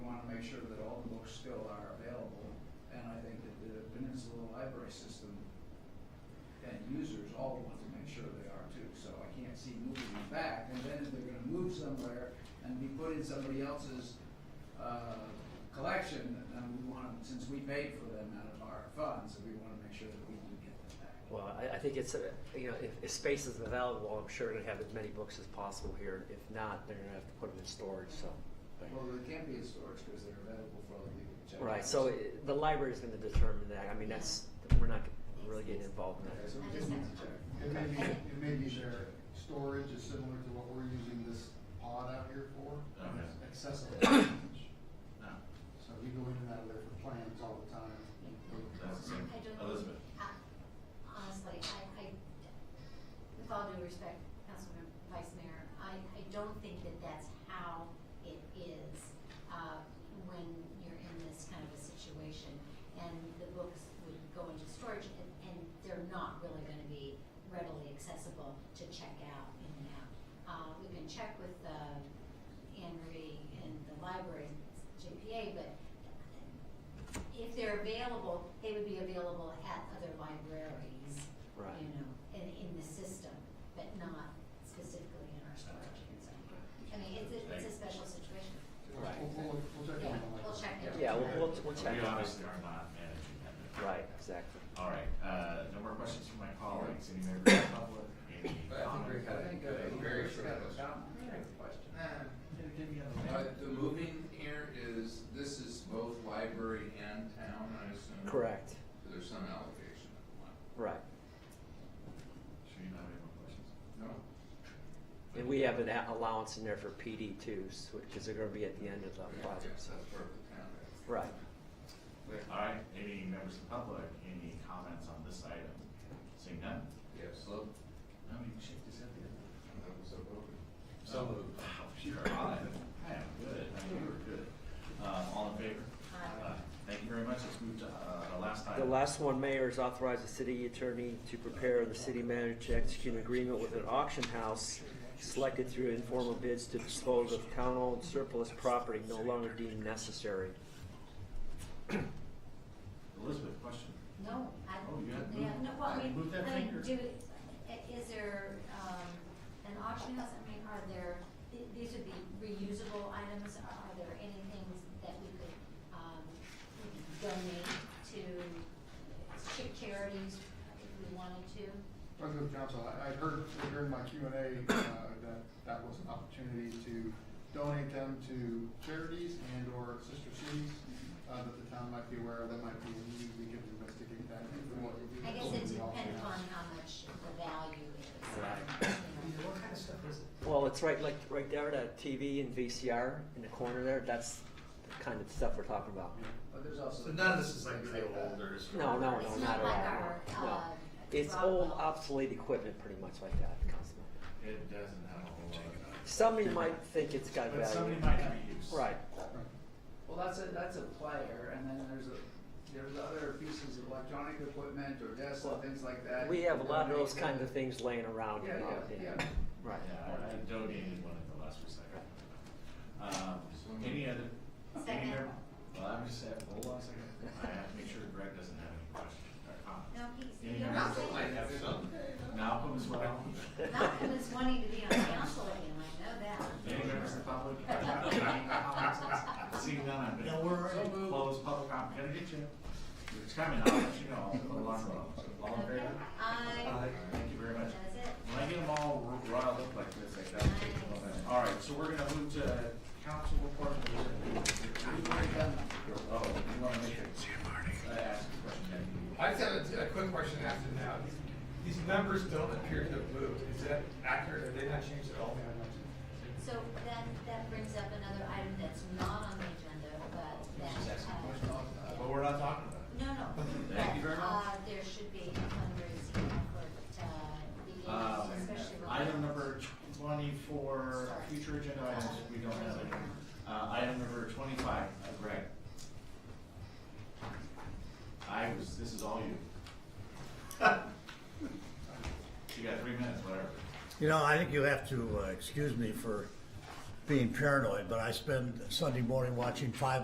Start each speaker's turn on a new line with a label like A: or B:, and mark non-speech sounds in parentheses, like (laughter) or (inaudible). A: sure that all the books still are available. And I think that the Peninsula Library System and users all want to make sure they are too. So I can't see moving them back. And then if they're gonna move somewhere and be put in somebody else's, uh, collection, then we want, them- since we paid for them out of our funds, we wanna make sure that we do get them back.
B: Well, I, I think it's, uh, you know, if, if space is available, I'm sure they're gonna have as many books as possible here. If not, they're gonna have to put them in storage, so.
A: Well, they can't be in storage because they're available for other people to check. out.
B: Right, so it- the library's gonna determine that. I mean, that's, we're not really getting involved in
A: Okay,
B: that.
A: so we just need to check.
C: It may be, it may be their storage is similar to what we're using this pod out here for,
D: Okay.
C: accessible storage.
D: No,
C: So we go in and out of there for plans all the time.
D: that's the same.
E: I don't-
D: Elizabeth.
E: I- Honestly, I, I, with all due respect, Councilman Vice Mayor, I, I don't think that that's how it is, uh, when you're in this kind of a situation. And the books would go into storage and, and they're not really gonna be readily accessible to check out in and out. Uh, we can check with, uh, Henry and the library, JPA, but if they're available, they would be available at other libraries,
B: Right.
E: you know, in, in the system, but not specifically in our storage concern. I mean, it's a, it's a special situation.
B: Right.
C: We'll, we'll, we'll check
E: Yeah,
C: on that.
E: we'll check it.
B: Yeah, we'll, we'll, we'll
D: But
B: check
D: We
B: on it.
D: obviously are not managing that.
B: Right, exactly.
D: All right, uh, no more questions from my colleagues, any members of the public, any
F: But I think we
D: comments?
F: had
A: I think, uh,
F: a very
A: we've
F: short
A: got a
F: question.
A: comment, we have a question.
F: Uh, the moving here is, this is both library and town, I assume?
B: Correct,
F: So There's some allocation of one.
B: right.
D: Sure you don't have any more questions?
F: No?
B: And we have an a- allowance in there for PD twos, which is gonna be at the end of the
F: Yeah,
B: project,
F: Yes,
B: so.
F: that's part of the town.
B: Right.
D: All right, any members of the public, any comments on this item? Seeing none?
F: Yeah, so,
D: No, you can shake this up there.
F: that was a vote.
D: So moved. Wow, you are on it. I am good, I think you were good. Uh, all in favor? Uh,
E: Aye.
D: Thank you very much, let's move to, uh, the last
B: The
D: item.
B: last one, Mayor, is authorize the city attorney to prepare the city manager to execute an agreement with an auction house selected through informal bids to dispose of town-owned surplus property no longer deemed necessary.
D: Elizabeth, question?
E: No, I,
D: Oh, you had
E: yeah,
D: moved-
E: no, well, I mean,
D: moved that
E: I mean,
D: finger.
E: do, i- is there, um, an auction house, I mean, are there, th- these would be reusable items, are, are there any things that we could, um, donate to chi- charities if we wanted to?
C: President of Council, I, I heard during my Q and A, uh, that that was an opportunity to donate them to charities and or sister cities, uh, that the town might be aware of, that might be, we can investigate that.
E: I guess it depends on how much the value is.
B: Right.
E: you know.
B: Well, it's right, like, right there, that TV and VCR in the corner there, that's the kind of stuff we're talking about.
A: But there's also.
G: So none of this is like really
A: that.
G: old or is.
B: No, no, no,
E: It's
B: not
E: not
B: at
E: like
B: all.
E: our,
B: No.
E: uh.
B: It's old
E: Rockwell.
B: obsolete equipment, pretty much like that, Councilman.
D: It doesn't have a whole lot.
B: Somebody might think it's got
D: But somebody
B: value.
D: might reuse.
B: Right,
A: Well, that's a, that's a player, and then there's a, there's other pieces of electronic equipment or desks and things like that.
B: we have a lot of those
A: Donate
B: kinds
A: them.
B: of things laying around
A: Yeah,
B: in our
A: yeah,
B: opinion.
A: yeah.
B: Right.
D: Yeah, I- I donated one at the last recycle. Um, any other?
E: Second.
D: any other- Well, I'm just saying, hold on a second, I have to make sure Greg doesn't have any questions or
E: No,
D: comments.
E: he's,
D: Any
E: you don't
D: members?
E: say-
F: I have some.
D: Malcolm as well.
E: Malcolm is wanting to be on council again, I know that.
D: Any members of the public? have any comments? Seeing none, I'm
G: No,
D: gonna
G: we're.
D: close public comment, gonna get you. It's coming, I'll let you know, I'll put a alarm on. All in
E: Okay,
D: favor?
E: I,
D: Thank you very much.
E: that's it.
D: When I get them all r- riled up like this, I gotta take them all down. All right, so we're gonna move to council report. Oh, you wanna make a, I asked a question, yeah.
H: I just have a, a quick question after now. These numbers don't appear to have moved. Is that accurate? Have they not changed at all?
E: So that, that brings up another item that's not on the agenda, but that.
D: She's asking
E: uh,
D: questions.
E: yeah.
D: But we're not talking about it.
E: No, no.
D: Thank you very
E: But,
D: much.
E: Uh, there should be a fundraising effort, uh,
D: Uh,
E: beginning, especially. with-
D: Item number twenty-four, future agenda items, we don't have any. Uh, item number twenty-five, uh, Greg. I was, this is all you. (laughs) You got three minutes, whatever.
I: You know, I think you have to uh, excuse me for being paranoid, but I spend Sunday morning watching five